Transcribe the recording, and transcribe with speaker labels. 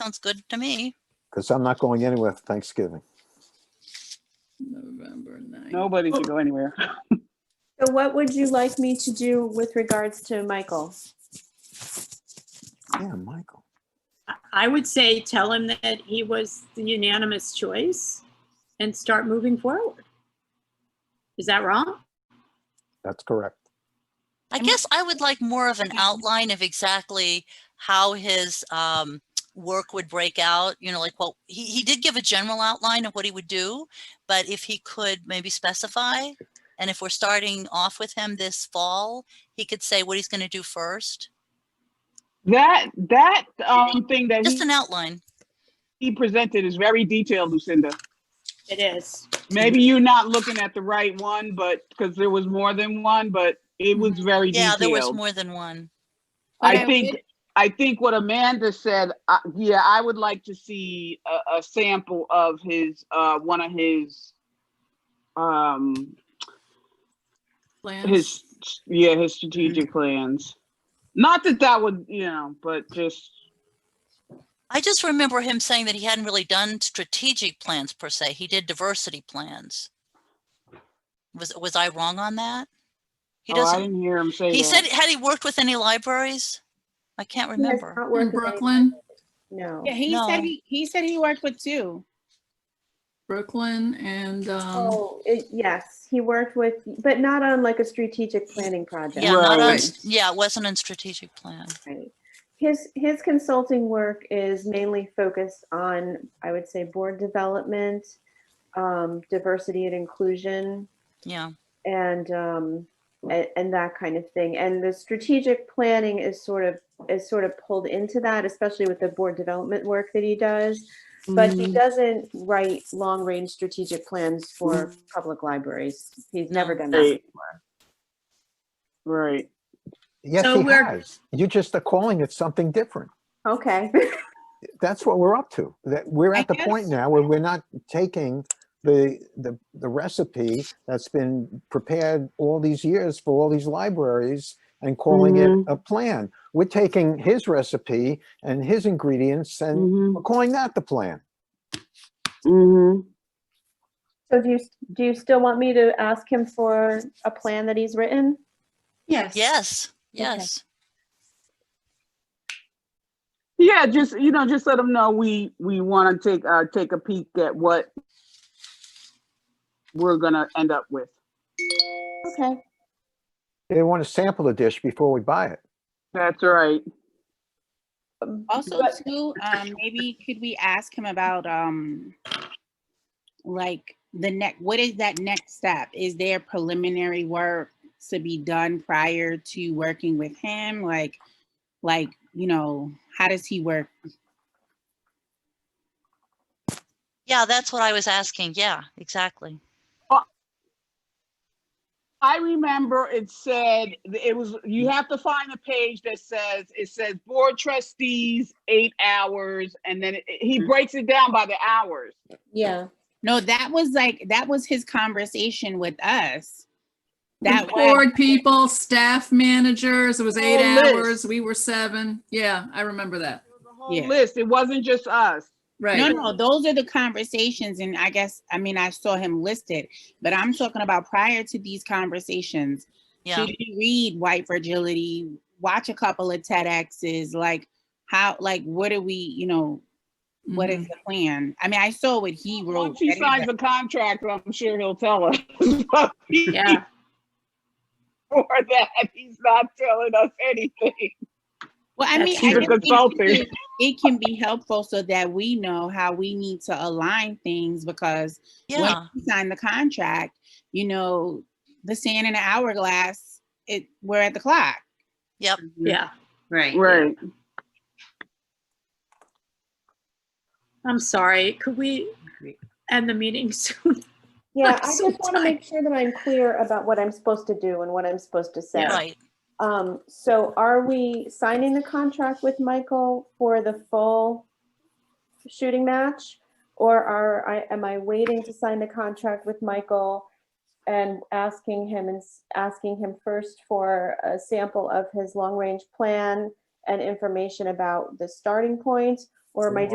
Speaker 1: Sounds good to me.
Speaker 2: because I'm not going anywhere for Thanksgiving.
Speaker 3: November 9th.
Speaker 4: Nobody can go anywhere.
Speaker 5: So what would you like me to do with regards to Michael?
Speaker 2: Yeah, Michael.
Speaker 6: I would say tell him that he was the unanimous choice and start moving forward. Is that wrong?
Speaker 2: That's correct.
Speaker 1: I guess I would like more of an outline of exactly how his um, work would break out, you know, like what, he, he did give a general outline of what he would do, but if he could maybe specify, and if we're starting off with him this fall, he could say what he's going to do first,
Speaker 4: That, that, um, thing that
Speaker 1: just
Speaker 4: he-
Speaker 1: an outline.
Speaker 4: he presented is very detailed, Lucinda.
Speaker 6: It is.
Speaker 4: Maybe you're not looking at the right one, but, because there was more than one, but it was very
Speaker 1: Mm-hmm. Yeah, there was
Speaker 4: detailed.
Speaker 1: more than one.
Speaker 5: But
Speaker 4: I think, I think what Amanda said, uh, yeah, I would like to see a, a sample of his, uh, one of his, um,
Speaker 3: Plans.
Speaker 4: his, yeah, his
Speaker 1: Mm-hmm.
Speaker 4: strategic plans. Not that that would, you know, but just,
Speaker 1: I just remember him saying that he hadn't really done strategic plans per se. He did diversity plans. Was, was I wrong on that? He
Speaker 4: oh, I
Speaker 1: doesn't,
Speaker 4: didn't hear him say that.
Speaker 1: he said, had he worked with any libraries? I can't
Speaker 5: He has
Speaker 1: remember.
Speaker 5: not
Speaker 3: In
Speaker 5: worked with any-
Speaker 3: Brooklyn,
Speaker 5: No.
Speaker 7: Yeah, uh, he said
Speaker 1: No.
Speaker 7: he, he said he worked with two.
Speaker 3: Brooklyn and, um,
Speaker 5: Oh, it- yes, he worked with, but not on like a strategic planning project.
Speaker 1: Yeah, not on,
Speaker 4: Right.
Speaker 1: s- yeah, it wasn't in strategic plan.
Speaker 5: Right. His, his consulting work is mainly focused on, I would say, board development, um, diversity and inclusion,
Speaker 1: Yeah,
Speaker 5: and, um, and, and that kind of thing. And the strategic planning is sort of, is sort of pulled into that, especially with the board development work that he does. But he
Speaker 3: mm,
Speaker 5: doesn't write long-range strategic plans for public libraries. He's never done that.
Speaker 4: Right. Right.
Speaker 2: Yes,
Speaker 6: So
Speaker 2: he
Speaker 6: we're-
Speaker 2: has. You just are calling it something different.
Speaker 5: Okay.
Speaker 2: That's what we're up to. That we're at
Speaker 7: I
Speaker 2: the point
Speaker 7: guess-
Speaker 2: now where we're not taking the, the, the recipe that's been prepared all these years for all these libraries and calling it a plan. We're taking his recipe and his ingredients and
Speaker 4: Mm-hmm,
Speaker 2: we're calling that the plan.
Speaker 4: mm-hmm.
Speaker 5: So do you, do you still want me to ask him for a plan that he's written?
Speaker 7: Yes.
Speaker 1: yes, yes.
Speaker 4: Yeah, just, you know, just let them know we, we wanna take, uh, take a peek at what we're gonna end up with.
Speaker 5: Okay.
Speaker 2: They want to sample the dish before we buy it.
Speaker 4: That's right.
Speaker 7: Also too, um, maybe could we ask him about, um, like the next, what is that next step? Is there preliminary work to be done prior to working with him? Like, like, you know, how does he work?
Speaker 1: Yeah, that's what I was asking. Yeah, exactly.
Speaker 4: I remember it said, it was, you have to find a page that says, it says board trustees, eight hours, and then it- he breaks it down by the hours.
Speaker 5: Yeah.
Speaker 7: No, that was like, that was his conversation with us. That was,
Speaker 3: board people, staff managers, it was eight
Speaker 4: Whole list.
Speaker 3: hours, we were seven. Yeah, I remember that.
Speaker 4: The whole
Speaker 7: Yeah.
Speaker 4: list, it wasn't just us.
Speaker 7: no,
Speaker 3: Right.
Speaker 7: no, those are the conversations and I guess, I mean, I saw him listed, but I'm talking about prior to these conversations.
Speaker 1: Yeah,
Speaker 7: Should you read White Fragility, watch a couple of TEDx's, like how, like, what do we, you know, what
Speaker 3: Mhm.
Speaker 1: Mm-hmm.
Speaker 7: is the plan? I mean, I saw what he wrote.
Speaker 4: Once he
Speaker 7: that is
Speaker 4: signs the
Speaker 7: like-
Speaker 4: contract, I'm sure he'll tell us. But he-
Speaker 6: Yeah.
Speaker 4: For that, he's not telling us anything.
Speaker 7: Well, I mean,
Speaker 6: That's
Speaker 7: I
Speaker 6: true.
Speaker 7: just think
Speaker 4: Consulting.
Speaker 7: it- it can be helpful so that we know how we need to align things because when
Speaker 1: yeah,
Speaker 7: we sign the contract, you know, the sand in the hourglass, it, we're at the clock.
Speaker 6: Yeah, right.
Speaker 4: Right.
Speaker 6: I'm sorry. Could we end the meeting soon?
Speaker 5: Yeah,
Speaker 6: I'm
Speaker 5: I just
Speaker 6: so
Speaker 5: want to
Speaker 6: tired.
Speaker 5: make sure that I'm clear about what I'm supposed to do and what I'm supposed to say.
Speaker 1: right.
Speaker 5: Um, so are we signing the contract with Michael for the full shooting match? Or are, I, am I waiting to sign the contract with Michael and asking him, and s- asking him first for a sample of his long-range plan and information about the starting point? Or am I